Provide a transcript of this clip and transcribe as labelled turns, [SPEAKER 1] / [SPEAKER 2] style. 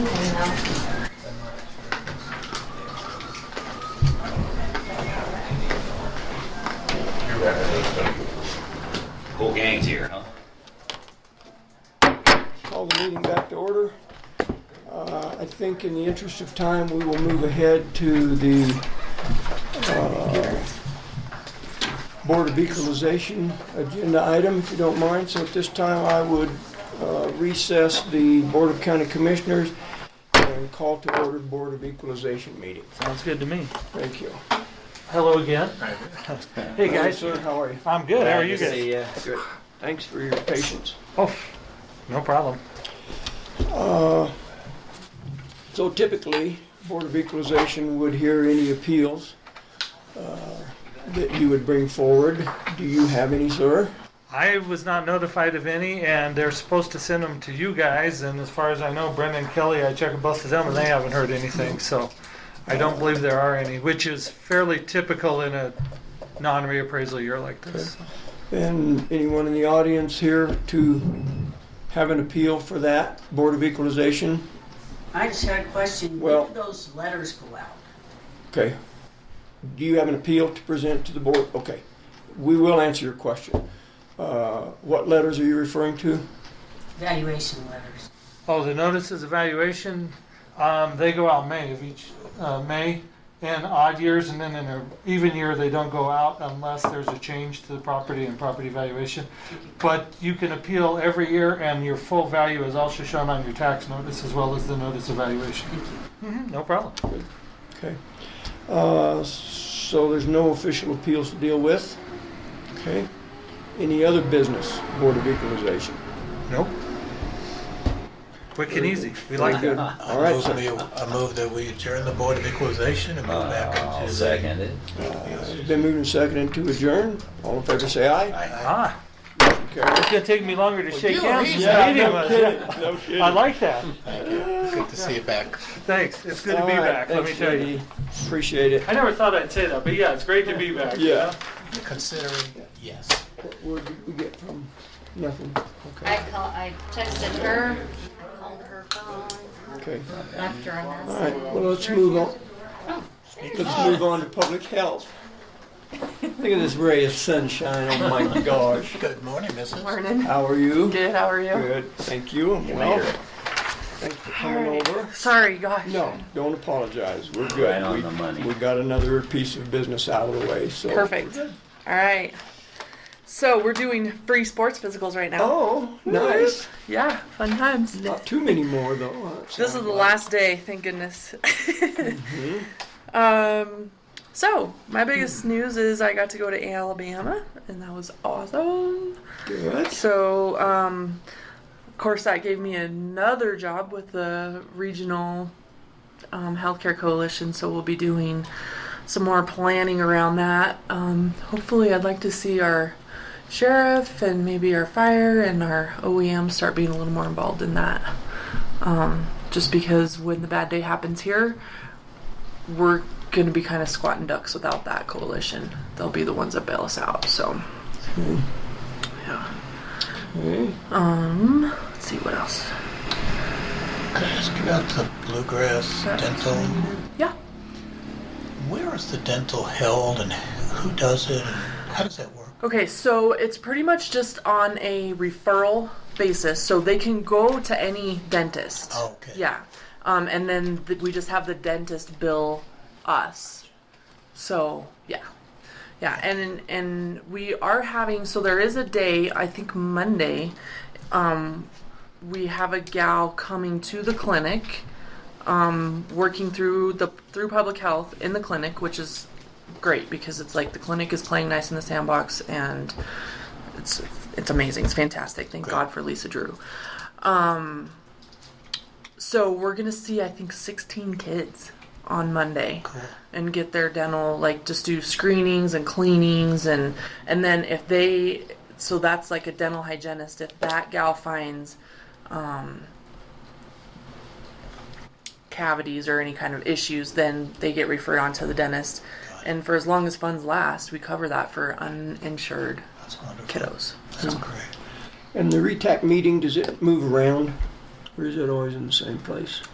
[SPEAKER 1] now.
[SPEAKER 2] Whole gang's here, huh?
[SPEAKER 3] Call the meeting back to order. Uh, I think in the interest of time, we will move ahead to the uh, Board of Equalization agenda item, if you don't mind. So at this time, I would uh, recess the Board of County Commissioners and call to order the Board of Equalization meeting.
[SPEAKER 4] Sounds good to me.
[SPEAKER 3] Thank you.
[SPEAKER 4] Hello again. Hey guys,
[SPEAKER 3] Sir, how are you?
[SPEAKER 4] I'm good. How are you
[SPEAKER 2] Good to see
[SPEAKER 4] guys?
[SPEAKER 2] ya.
[SPEAKER 3] Good. Thanks for your patience.
[SPEAKER 4] Oh, no problem.
[SPEAKER 3] So typically, Board of Equalization would hear any appeals uh, that you would bring forward. Do you have any, sir?
[SPEAKER 4] I was not notified of any, and they're supposed to send them to you guys. And as far as I know, Brendan Kelly, I checked with both of them, and they haven't heard anything. So I don't believe there are any, which is fairly typical in a non-reappraisal year like this.
[SPEAKER 3] And anyone in the audience here to have an appeal for that, Board of Equalization?
[SPEAKER 1] I just had a question.
[SPEAKER 3] Well-
[SPEAKER 1] When do those letters go out?
[SPEAKER 3] Okay. Do you have an appeal to present to the board? Okay. We will answer your question. Uh, What letters are you referring to?
[SPEAKER 1] Evaluation letters.
[SPEAKER 4] Oh, the notices evaluation, um, they go out May of each, uh, May in odd years and then in an even year, they don't go out unless there's a change to the property and property valuation. But you can appeal every year and your full value is also shown on your tax notice as well as the notice evaluation. Mhm, No problem.
[SPEAKER 3] Okay. Uh, So there's no official appeals to deal with? Okay. Any other business, Board of Equalization?
[SPEAKER 4] Nope. Quick and easy. We like
[SPEAKER 3] Very good.
[SPEAKER 4] that.
[SPEAKER 3] All right,
[SPEAKER 5] Move
[SPEAKER 3] sir.
[SPEAKER 5] the- I move that we adjourn the Board of Equalization and move back
[SPEAKER 2] I'll
[SPEAKER 5] into the...
[SPEAKER 2] second it.
[SPEAKER 3] It's Been moved and seconded to adjourn. All in favor, say aye.
[SPEAKER 5] Aye.
[SPEAKER 4] Ah,
[SPEAKER 3] Carry.
[SPEAKER 4] it's gonna take me longer to shake
[SPEAKER 5] you
[SPEAKER 4] hands.
[SPEAKER 5] easy.
[SPEAKER 4] than
[SPEAKER 5] Yeah,
[SPEAKER 4] meeting
[SPEAKER 3] no
[SPEAKER 4] was.
[SPEAKER 3] kidding, no kidding.
[SPEAKER 4] I like that.
[SPEAKER 5] Good to see you back.
[SPEAKER 4] Thanks. It's good to
[SPEAKER 3] All
[SPEAKER 4] be
[SPEAKER 3] right,
[SPEAKER 4] back, let me
[SPEAKER 3] thanks,
[SPEAKER 4] tell you.
[SPEAKER 3] JD. Appreciate it.
[SPEAKER 4] I never thought I'd say that, but yeah, it's great to be back. you
[SPEAKER 3] Yeah.
[SPEAKER 4] know?
[SPEAKER 5] Considering, yes.
[SPEAKER 3] Where did we get from? Nothing.
[SPEAKER 6] I
[SPEAKER 3] Okay.
[SPEAKER 6] call, I texted her, called her phone,
[SPEAKER 3] Okay.
[SPEAKER 6] left her a
[SPEAKER 3] All right,
[SPEAKER 6] message.
[SPEAKER 3] well, let's move on.
[SPEAKER 6] Oh,
[SPEAKER 3] Let's move on to public health. Look at this ray of sunshine. Oh my gosh.
[SPEAKER 5] Good morning, Mrs.
[SPEAKER 7] Morning.
[SPEAKER 3] How are you?
[SPEAKER 7] Good, how are you?
[SPEAKER 3] Good, thank you. I'm Well, thanks for coming over.
[SPEAKER 7] Sorry, gosh.
[SPEAKER 3] No, don't apologize. We're
[SPEAKER 2] Right
[SPEAKER 3] good.
[SPEAKER 2] on
[SPEAKER 3] We-
[SPEAKER 2] the money.
[SPEAKER 3] We got another piece of business out of the way, so.
[SPEAKER 7] Perfect. All right. So we're doing free sports physicals right now.
[SPEAKER 3] Oh, nice.
[SPEAKER 7] Yeah, fun times.
[SPEAKER 3] Not too many more though. huh? It
[SPEAKER 7] This is
[SPEAKER 3] sounds
[SPEAKER 7] the
[SPEAKER 3] like.
[SPEAKER 7] last day, thank goodness.
[SPEAKER 3] Mm-hmm.
[SPEAKER 7] um, so my
[SPEAKER 3] Hmm.
[SPEAKER 7] biggest news is I got to go to Alabama, and that was awesome.
[SPEAKER 3] Good.
[SPEAKER 7] So, um, of course, that gave me another job with the regional um, healthcare coalition. So we'll be doing some more planning around that. Um, hopefully, I'd like to see our sheriff and maybe our fire and our OEM start being a little more involved in that. Um, just because when the bad day happens here, we're going to be kind of squatting ducks without that coalition. They'll be the ones that bail us out. So, yeah.
[SPEAKER 3] Okay.
[SPEAKER 7] Um, let's see what else.
[SPEAKER 5] Can I ask you about the bluegrass dental?
[SPEAKER 7] Yeah.
[SPEAKER 5] Where is the dental held and who does it? and How does that work?
[SPEAKER 7] Okay, so it's pretty much just on a referral basis, so they can go to any dentist.
[SPEAKER 5] Oh, okay.
[SPEAKER 7] Yeah, um, and then th- we just have the dentist bill us. So yeah, yeah, and and we are having so there is a day I think Monday. Um, we have a gal coming to the clinic, um, working through the through public health in the clinic, which is great because it's like the clinic is playing nice in the sandbox and it's it's amazing. It's fantastic. Thank God for Lisa Drew. Um, so we're gonna see I think 16 kids on Monday
[SPEAKER 5] Cool.
[SPEAKER 7] and get their dental like just do screenings and cleanings and and then if they so that's like a dental hygienist if that gal finds um, cavities or any kind of issues, then they get referred on to the dentist. And for as long as funds last, we cover that for uninsured
[SPEAKER 5] That's wonderful.
[SPEAKER 7] kiddos.
[SPEAKER 5] That's great.
[SPEAKER 3] And the RETAC meeting, does it move around? Or is it always in the same place?